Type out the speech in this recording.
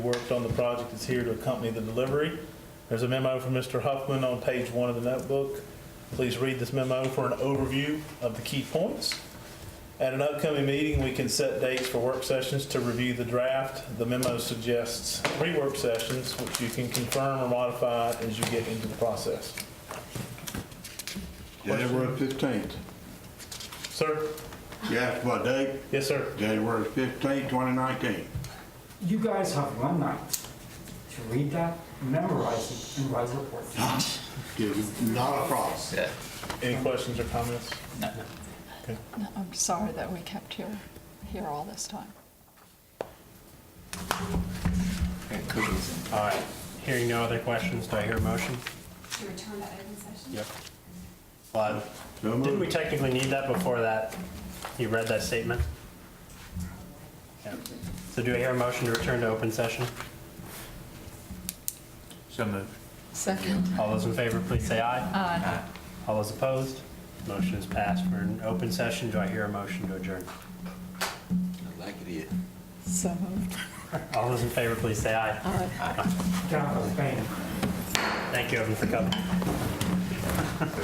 worked on the project is here to accompany the delivery. There's a memo from Mr. Huffman on page one of the notebook. Please read this memo for an overview of the key points. At an upcoming meeting, we can set dates for work sessions to review the draft. The memo suggests three work sessions, which you can confirm or modify as you get into the process. January fifteenth. Sir? You asked what date? Yes, sir. January fifteenth, twenty nineteen. You guys have one night to read that, memorize it, and write reports. Not a problem. Any questions or comments? No, I'm sorry that we kept here, here all this time. All right, hearing no other questions, do I hear a motion? To return to open session? Yep. Well, So didn't we moved. technically need that before that, you read that statement? Yeah. So do I hear a motion to return to open session? So moved. Second. All those in favor, please say aye. Aye. All those opposed, motion is passed. We're in open session, do I hear a motion to adjourn? So moved. All those in favor, please say aye. Aye. Down the Spain. Thank you, everyone, for coming.